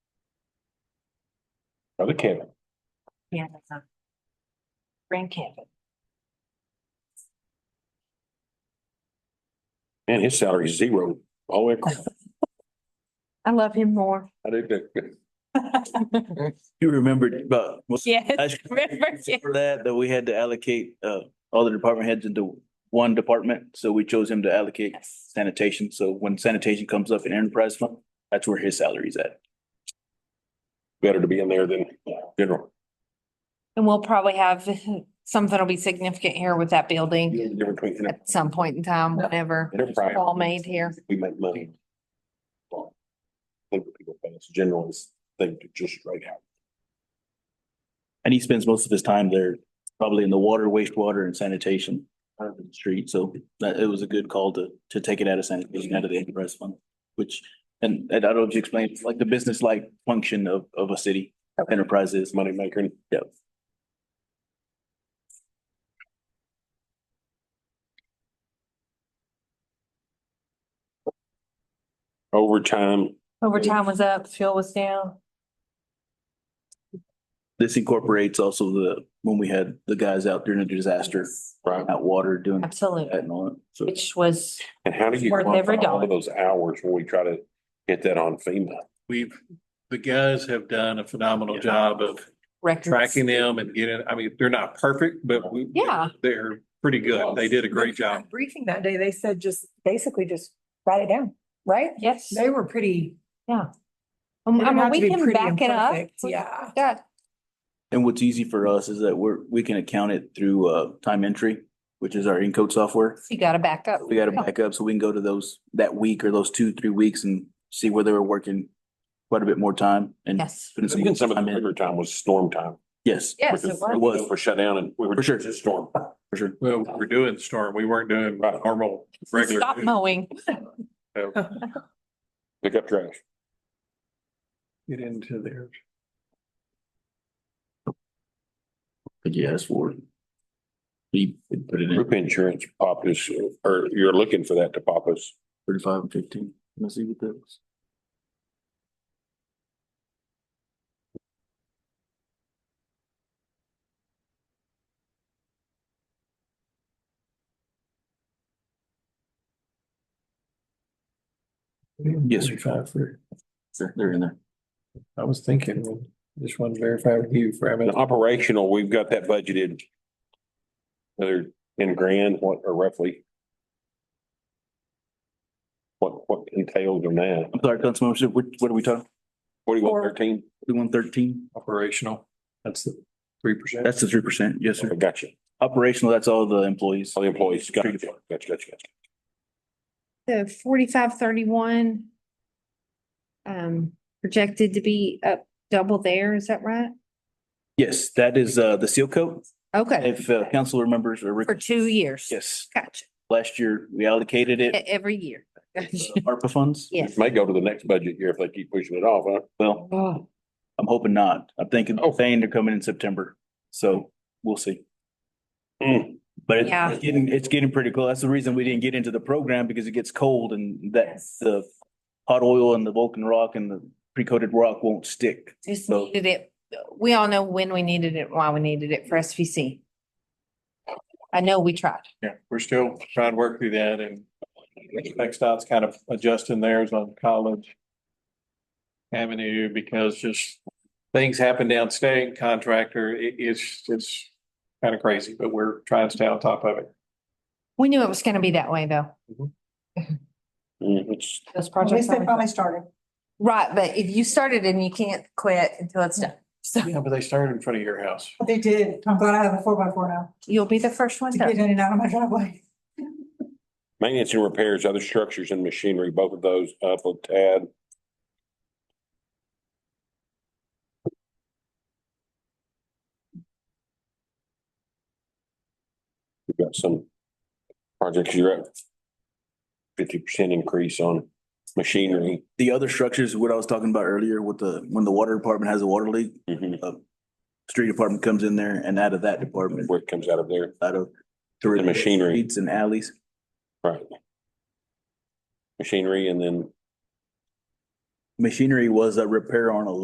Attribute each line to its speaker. Speaker 1: Other Kevin,
Speaker 2: Yeah, that's a Grand camping.
Speaker 1: and his salary is zero. Oh, it-
Speaker 2: I love him more.
Speaker 1: I did that.
Speaker 3: You remembered about. was-
Speaker 2: Yes,
Speaker 3: last-
Speaker 2: remember, yeah.
Speaker 3: For that, that we had to allocate uh all the department heads into one department, so we chose him to allocate
Speaker 2: Yes.
Speaker 3: sanitation, so when sanitation comes up in enterprise fund, that's where his salary's at.
Speaker 1: Better to be in there than general.
Speaker 2: And we'll probably have, something will be significant here with that building
Speaker 1: You know the difference between
Speaker 2: at some point in time, whenever
Speaker 1: enterprise.
Speaker 2: it's all made here.
Speaker 1: We make money. Well, I Think what people think it's general is they just straight out.
Speaker 3: And he spends most of his time there, probably in the water, wastewater and sanitation part of the street, so that it was a good call to to take it out of sanitation, out of the enterprise fund. Which, and and I don't know if you explained, it's like the business like function of of a city, enterprise is.
Speaker 1: It's money maker.
Speaker 3: Yep.
Speaker 1: Overtime,
Speaker 2: Overtime was up, fuel was down.
Speaker 3: This incorporates also the, when we had the guys out during a disaster,
Speaker 1: right?
Speaker 3: out water doing that
Speaker 2: Absolutely,
Speaker 3: and all that, so.
Speaker 2: which was,
Speaker 1: And how do you
Speaker 2: Worth every
Speaker 1: quantify all
Speaker 2: dollar.
Speaker 1: of those hours when we try to get that on FEMA?
Speaker 4: we've, the guys have done a phenomenal
Speaker 3: Yeah.
Speaker 4: job of
Speaker 2: records.
Speaker 4: tracking them and getting, I mean, they're not perfect, but we.
Speaker 2: Yeah.
Speaker 4: They're pretty good. They did a great job.
Speaker 5: Briefing that day, they said just basically just write it down, right?
Speaker 2: Yes.
Speaker 5: They were pretty.
Speaker 2: Um,
Speaker 5: it
Speaker 2: I mean,
Speaker 5: had
Speaker 2: we
Speaker 5: to be
Speaker 2: can
Speaker 5: pretty
Speaker 2: back it up.
Speaker 5: imperfect, Yeah.
Speaker 2: Yeah,
Speaker 3: And what's easy for us is that we're, we can account it through uh time entry, which is our encode software.
Speaker 2: you gotta back up.
Speaker 3: We got to back up so we can go to those, that week or those two, three weeks and see where they were working quite a bit more time and.
Speaker 2: Yes.
Speaker 3: putting
Speaker 1: Even some of the
Speaker 3: time in.
Speaker 1: bigger time was storm time.
Speaker 3: Yes,
Speaker 2: Yes,
Speaker 1: because
Speaker 2: it was.
Speaker 3: was.
Speaker 1: For shutdown and we were.
Speaker 3: For sure.
Speaker 1: Just storm.
Speaker 3: for sure.
Speaker 4: Well, we we're doing storm. We weren't doing
Speaker 1: Right.
Speaker 4: normal, regular.
Speaker 2: Stop mowing.
Speaker 4: so
Speaker 1: Pick up trash.
Speaker 4: Get into there.
Speaker 3: But yeah, that's for. We put it in
Speaker 1: Group insurance pop us, or you're looking for that to pop us.
Speaker 3: thirty-five and fifteen. Let's see what that was. Yes,
Speaker 4: Five for,
Speaker 3: Sure, they're in there.
Speaker 4: I was thinking, just want to verify with you for, I
Speaker 1: And operational, we've got that budgeted. Another ten grand, what, or roughly. What, what entailed in that?
Speaker 3: I'm sorry, Councilmember, Sue, what, what are we talking?
Speaker 1: Forty-one thirteen?
Speaker 3: Thirty-one thirteen?
Speaker 4: operational. That's the three percent.
Speaker 3: That's the three percent, yes, sir.
Speaker 1: Oh, Gotcha.
Speaker 3: Operational, that's all the employees.
Speaker 1: All the employees, gotcha, gotcha, gotcha, gotcha.
Speaker 2: The forty-five thirty-one. Um, projected to be up double there, is that right?
Speaker 3: Yes, that is, uh, the seal coat.
Speaker 2: Okay,
Speaker 3: If, uh, council remembers or.
Speaker 2: for two years.
Speaker 3: Yes,
Speaker 2: Gotcha,
Speaker 3: last year we allocated
Speaker 2: E-
Speaker 3: it,
Speaker 2: every year.
Speaker 3: uh, ARPA funds.
Speaker 2: Yes.
Speaker 1: May go to the next budget year if they keep pushing it off, huh?
Speaker 3: Well,
Speaker 2: Oh,
Speaker 3: I'm hoping not. I'm thinking,
Speaker 1: Oh.
Speaker 3: saying they're coming in September, so we'll see.
Speaker 1: Mm.
Speaker 3: But it-
Speaker 2: Yeah.
Speaker 3: it's getting, it's getting pretty cool. That's the reason we didn't get into the program because it gets cold and that
Speaker 2: Yes.
Speaker 3: the hot oil and the Vulcan rock and the pre-coated rock won't stick.
Speaker 2: Just
Speaker 3: So-
Speaker 2: needed it. We all know when we needed it, why we needed it for SVC. I know we tried.
Speaker 4: Yeah, we're still trying to work through that and Nextdot's kind of adjusting theirs on College Avenue because just things happen downstate, contractor, it, it's, it's kind of crazy, but we're trying to stay on top of it.
Speaker 2: We knew it was gonna be that way, though.
Speaker 1: Mm, it's-
Speaker 2: Those
Speaker 5: At
Speaker 2: projects.
Speaker 5: least they
Speaker 2: always-
Speaker 5: finally started.
Speaker 2: Right, but if you started and you can't quit until it's done, so
Speaker 4: Yeah, but they started in front of your house.
Speaker 5: They did. I'm glad I have a four by four now
Speaker 2: you'll be the first one
Speaker 5: to
Speaker 2: done.
Speaker 5: get in and out of my driveway.
Speaker 1: Maintenance and repairs, other structures and machinery, both of those up a tad. We've got some projects you're at fifty percent increase on machinery.
Speaker 3: The other structures, what I was talking about earlier with the, when the water department has a water leak,
Speaker 1: Mhm.
Speaker 3: street department comes in there and out of that department,
Speaker 1: Where it comes out of there,
Speaker 3: out of.
Speaker 1: the machinery,
Speaker 3: Streets and alleys.
Speaker 1: right? Machinery and then
Speaker 3: Machinery was a repair on a